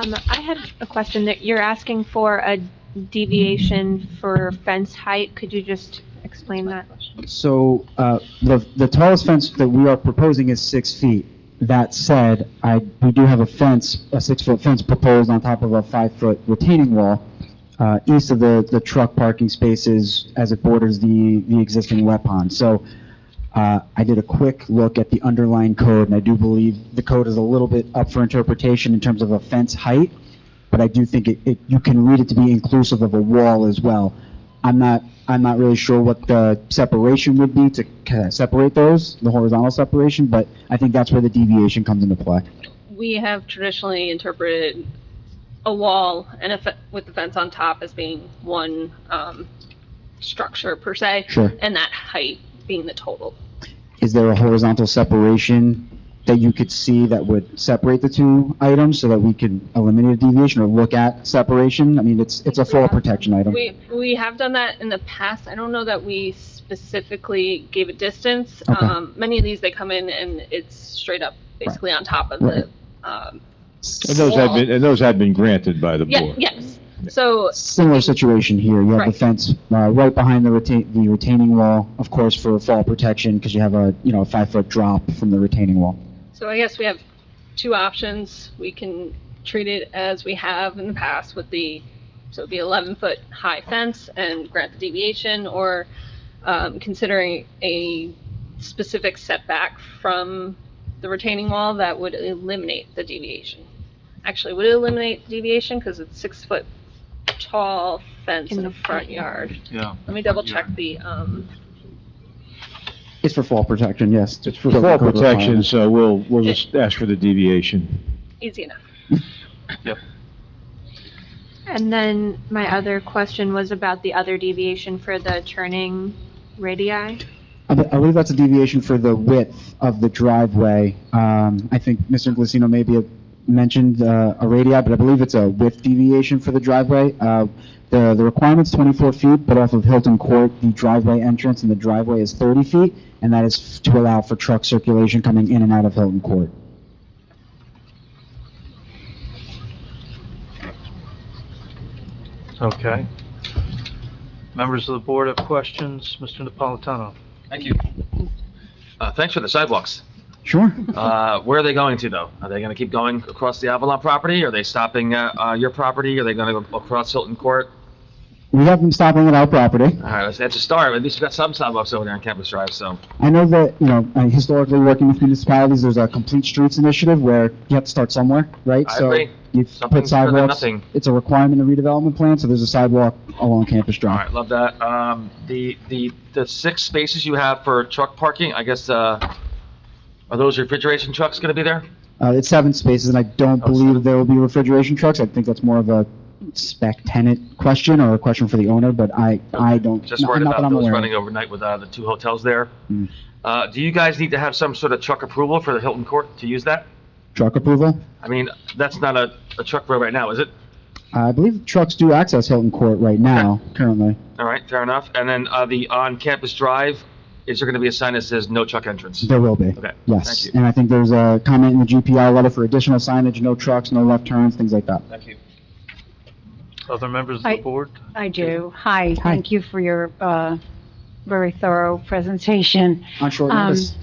Um, I had a question that you're asking for a deviation for fence height. Could you just explain that? So uh, the the tallest fence that we are proposing is six feet. That said, I, we do have a fence, a six-foot fence proposed on top of a five-foot retaining wall uh, east of the, the truck parking spaces as it borders the, the existing wet pond. So uh, I did a quick look at the underlying code, and I do believe the code is a little bit up for interpretation in terms of a fence height, but I do think it, it- you can read it to be inclusive of a wall as well. I'm not, I'm not really sure what the separation would be to kinda separate those, the horizontal separation, but I think that's where the deviation comes into play. We have traditionally interpreted a wall and a, fe- with the fence on top as being one, um, structure per se. Sure. And that height being the total. Is there a horizontal separation that you could see that would separate the two items so that we could eliminate a deviation or look at separation? I mean, it's, it's a fall protection item. We, we have done that in the past. I don't know that we specifically gave a distance. Okay. Um, many of these, they come in and it's straight up basically on top of Right. the, um, And those had wall. been, and those had been granted by the Yeah, board. yes. So Similar situation here, you have the Right. fence uh, right behind the retain, the retaining wall, of course, for fall protection, because you have a, you know, a five-foot drop from the retaining wall. So I guess we have two options. We can treat it as we have in the past with the, so it'd be 11-foot high fence and grant the deviation, or um, considering a specific setback from the retaining wall that would eliminate the deviation. Actually, would it eliminate deviation because it's six-foot tall fence in the front yard? Yeah. Let me double-check the, um, It's for fall protection, yes. It's for So fall the code requirement. protection, so we'll, we'll just ask for the deviation. easy enough. And then my other question was about the other deviation for the turning radii. I be- I believe that's a deviation for the width of the driveway. Um, I think Mr. Glissino maybe had mentioned uh, a radii, but I believe it's a width deviation for the driveway. Uh, The the requirement's 24 feet, but off of Hilton Court, the driveway entrance and the driveway is 30 feet, and that is f- to allow for truck circulation coming in and out of Hilton Court. Okay. Members of the board have questions? Mr. Napolitano? Thank you. Uh, Thanks for the sidewalks. Sure. Uh, Where are they going to, though? Are they going to keep going across the Avalon property? Are they stopping uh, uh, your property? Are they going to go across Hilton Court? We have them stopping at our property. All right, that's a start. At least we got some sidewalks over there on Campus Drive, so. I know that, you know, uh, historically working with municipalities, there's a complete streets initiative where you have to start somewhere, right? I So agree. you put Something's better than sidewalks, nothing. it's a requirement in the redevelopment plan, so there's a sidewalk along Campus All Drive. right, love that. Um, The, the, the six spaces you have for truck parking, I guess, uh, are those refrigeration trucks going to be there? Uh, it's seven spaces, and I don't Oh, seven. believe there will be refrigeration trucks. I think that's more of a spec tenant question or a question for the owner, but I, I don't, Just not worried not that about I'm those aware of. running overnight with uh, the two hotels there. Hmm. Uh, Do you guys need to have some sort of truck approval for the Hilton Court to use that? Truck approval? I mean, that's not a, a truck road right now, is it? I believe trucks do access Hilton Court right now, currently. All right, fair enough. And then, uh, the on-campus drive, is there gonna be a sign that says no truck entrance? There will be. Okay, thank Yes, you. and I think there's a comment in the GPI letter for additional signage, no trucks, no left turns, things like that. Thank you. Other members of the I- board? I do. Hi, thank you for your uh, very thorough presentation. On short Um, notice.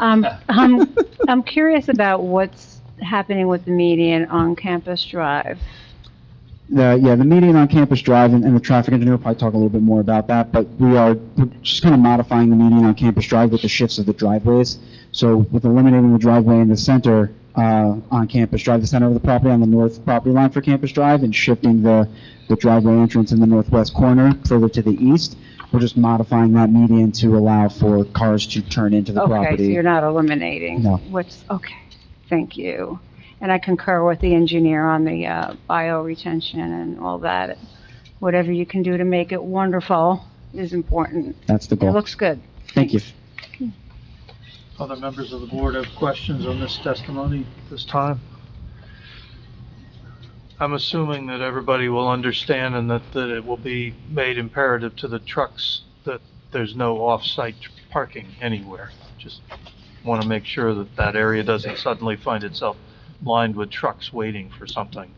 Um, I'm I'm curious about what's happening with the median on Campus Drive. The, yeah, the median on Campus Drive, and, and the traffic engineer will probably talk a little bit more about that, but we are we're just kind of modifying the median on Campus Drive with the shifts of the driveways. So with eliminating the driveway in the center, uh, on Campus Drive, the center of the property on the north property line for Campus Drive, and shifting the, the driveway entrance in the northwest corner further to the east, we're just modifying that median to allow for cars to turn into the Okay, so property. you're not eliminating? No. What's, okay, thank you. And I concur with the engineer on the uh, bio retention and all that. Whatever you can do to make it wonderful is important. That's the It goal. looks good. Thank you. Other members of the board have questions on this testimony at this time? I'm assuming that everybody will understand and that, that it will be made imperative to the trucks that there's no off-site parking anywhere. Just want to make sure that that area doesn't suddenly find itself lined with trucks waiting for something.